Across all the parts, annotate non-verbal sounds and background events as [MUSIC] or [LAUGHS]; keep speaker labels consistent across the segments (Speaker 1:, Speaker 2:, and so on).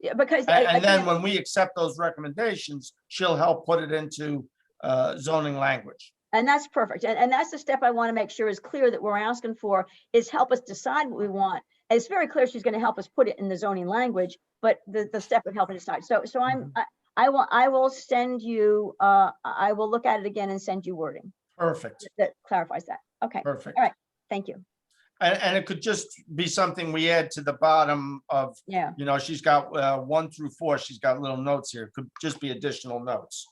Speaker 1: Yeah, because. I-
Speaker 2: And,
Speaker 1: I
Speaker 2: and then
Speaker 1: think-
Speaker 2: when we accept those recommendations, she'll help put it into, uh, zoning language.
Speaker 1: And that's perfect. And, and that's the step I want to make sure is clear that we're asking for is help us decide what we want. And it's very clear she's going to help us put it in the zoning language, but the, the step of helping decide. So, so I'm,
Speaker 2: Mm-hmm.
Speaker 1: I, I will, I will send you, uh, I I will look at it again and send you wording
Speaker 2: Perfect,
Speaker 1: that clarifies that. Okay,
Speaker 2: perfect.
Speaker 1: thank you.
Speaker 2: And, and it could just be something we add to the bottom of,
Speaker 1: Yeah,
Speaker 2: you know, she's got, uh, one through four, she's got little notes here. Could just be additional notes.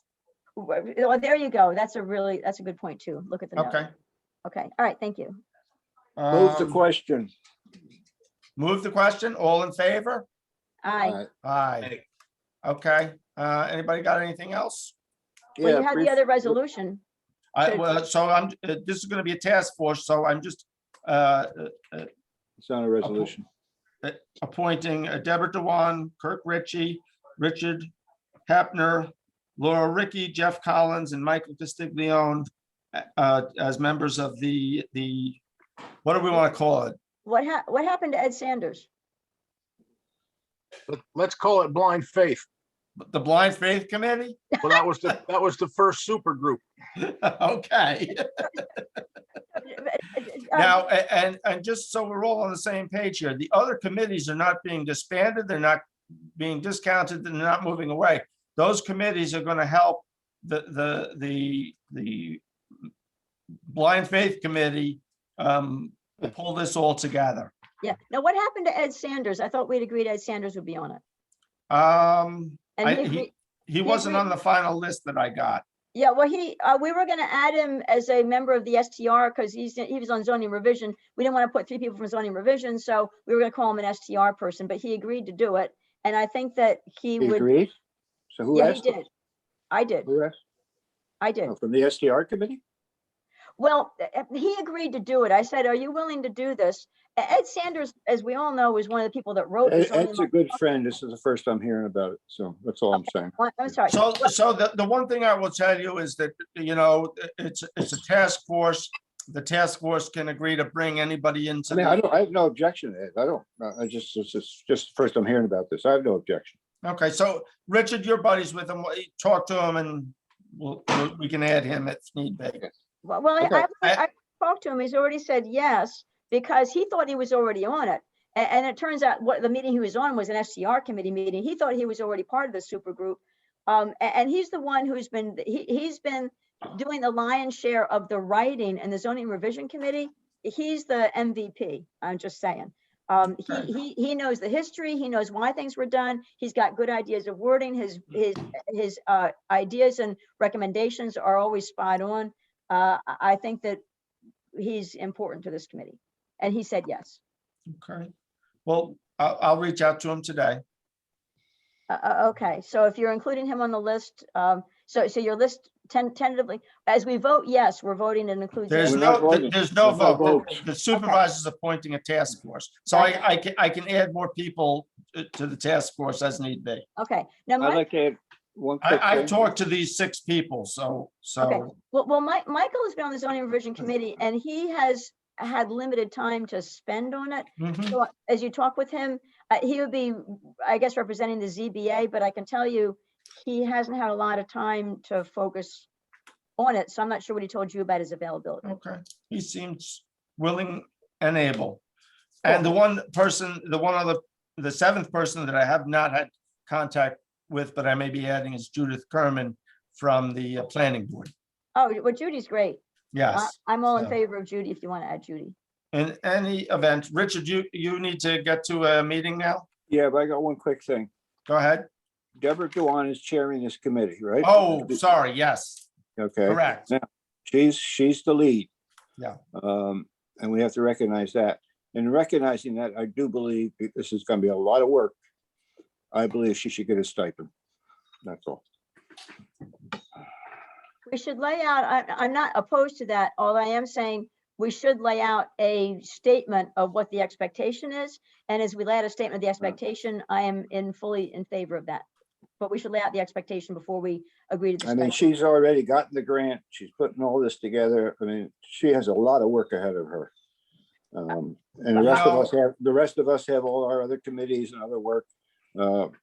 Speaker 1: W- well, there you go. That's a really, that's a good point too. Look at the note.
Speaker 2: Okay.
Speaker 1: Okay, all right, thank you.
Speaker 3: Move the
Speaker 2: Um,
Speaker 3: question.
Speaker 2: Move the question. All in favor?
Speaker 1: Aye.
Speaker 3: Uh,
Speaker 2: Aye. Okay, uh, anybody got anything else?
Speaker 1: Well, you
Speaker 3: yeah,
Speaker 1: had
Speaker 3: brief-
Speaker 1: the other resolution.
Speaker 2: I,
Speaker 1: So-
Speaker 2: well, so I'm, uh, this is gonna be a task force, so I'm just, uh,
Speaker 3: It's not a resolution.
Speaker 2: appointing uh, Deborah Dewan, Kirk Ritchie, Richard Hapner, Laura Ricky, Jeff Collins, and Michael Castiglione uh, as members of the, the, what do we want to call it?
Speaker 1: What hap, what happened to Ed Sanders?
Speaker 4: Let- Let's call it blind faith.
Speaker 2: The Blind Faith Committee? [LAUGHS]
Speaker 4: Well, that was the, that was the first super group.
Speaker 2: Okay.
Speaker 1: Uh, uh, uh,
Speaker 2: Now, a- and, and just so we're all on the same page here, the other committees are not being disbanded, they're not being discounted, they're not moving away. Those committees are gonna help the, the, the, the Blind Faith Committee um, pull this all together.
Speaker 1: Yeah, now what happened to Ed Sanders? I thought we'd agreed Ed Sanders would be on it.
Speaker 2: Um, I-
Speaker 1: And he,
Speaker 2: he-
Speaker 1: agreed-
Speaker 2: he wasn't on the final list that I got.
Speaker 1: yeah, well, he, uh, we were gonna add him as a member of the STR because he's, he was on zoning revision. We didn't want to put three people from zoning revision, so we were gonna call him an STR person, but he agreed to do it. And I think that he
Speaker 3: He
Speaker 1: would,
Speaker 3: agrees? So who
Speaker 1: yeah, he
Speaker 3: asked? him?
Speaker 1: did. I did,
Speaker 3: Who asked?
Speaker 1: I did.
Speaker 3: Oh, From the SDR committee?
Speaker 1: Well, uh, uh, he agreed to do it. I said, are you willing to do this? E- Ed Sanders, as we all know, is one of the people that wrote. the
Speaker 3: Ed-
Speaker 1: zoning
Speaker 3: Ed's
Speaker 1: law.
Speaker 3: a good friend. This is the first I'm hearing about it, so that's all I'm saying.
Speaker 1: Well, I'm sorry.
Speaker 2: So, so the, the one thing I will tell you is that, you know, it's, it's a task force. The task force can agree to bring anybody into.
Speaker 3: I mean,
Speaker 2: the-
Speaker 3: I don't, I have no objection to it. I don't, uh, I- I just, it's just, just the first I'm hearing about this. I have no objection.
Speaker 2: Okay, so Richard, your buddies with him, talk to him and we'll, we'll- we can add him if need be.
Speaker 1: Well, well, I-
Speaker 3: Okay.
Speaker 1: I've,
Speaker 2: I-
Speaker 1: I spoke to him, he's already said yes, because he thought he was already on it. A- And, it turns out what the meeting he was on was an SCR committee meeting, he thought he was already part of the super group. Um, a- and, he's the one who's been, he, he's been doing the lion's share of the writing and the zoning revision committee. He's the MVP, I'm just saying. Um,
Speaker 2: Right.
Speaker 1: he, he, he knows the history, he knows why things were done, he's got good ideas of wording, his, his, his, uh, ideas and recommendations are always spot on uh, I I think that he's important to this committee. And he said yes.
Speaker 2: Okay. Well, I'll, I'll reach out to him today.
Speaker 1: Uh, uh, okay, so if you're including him on the list, um, so, so your list ten- tentatively, as we vote yes, we're voting and includes.
Speaker 2: There's
Speaker 3: We're
Speaker 1: everyone.
Speaker 3: not
Speaker 2: no,
Speaker 3: voting.
Speaker 2: there's no
Speaker 3: There's no
Speaker 2: vote.
Speaker 3: votes.
Speaker 2: The supervisor's appointing a task force. So I, I can, I can add more people to- to the task force as need be.
Speaker 1: Okay, now
Speaker 3: I'd
Speaker 1: Mike,
Speaker 3: like to add one quick
Speaker 2: I, I've
Speaker 3: thing.
Speaker 2: talked to these six people, so,
Speaker 1: Okay.
Speaker 2: so,
Speaker 1: well, well, Mike, Michael has been on the zoning revision committee and he has had limited time to spend on it.
Speaker 2: mhm.
Speaker 1: So as you talk with him, uh, he would be, I guess, representing the ZBA, but I can tell you, he hasn't had a lot of time to focus on it, so I'm not sure what he told you about his availability.
Speaker 2: okay. He seems willing and able. And the one person, the one other, the seventh person that I have not had contact with, but I may be adding is Judith Kerman from the uh, planning board.
Speaker 1: Oh, well, Judy's great. I-
Speaker 2: Yes,
Speaker 1: I'm all in
Speaker 2: so-
Speaker 1: favor of Judy if you want to add Judy.
Speaker 2: in any event, Richard, you, you need to get to a meeting now.
Speaker 3: Yeah, but I got one quick thing.
Speaker 2: Go ahead.
Speaker 3: Deborah Dewan is chairing this committee, right?
Speaker 2: Oh, sorry. Yes,
Speaker 3: Okay.
Speaker 2: correct.
Speaker 3: She's, she's the lead.
Speaker 2: Yeah.
Speaker 3: Um, and we have to recognize that. And recognizing that, I do believe that this is gonna be a lot of work. I believe she should get a stipend. That's all.
Speaker 1: We should lay out, I, I'm not opposed to that. All I am saying, we should lay out a statement of what the expectation is. And as we lay out a statement of the expectation, I am in fully in favor of that. But we should lay out the expectation before we agree to the
Speaker 3: I mean,
Speaker 1: stipend.
Speaker 3: she's already gotten the grant. She's putting all this together. I mean, she has a lot of work ahead of her. Um, and the rest of us have, the rest of us have all our other committees and other work. Uh,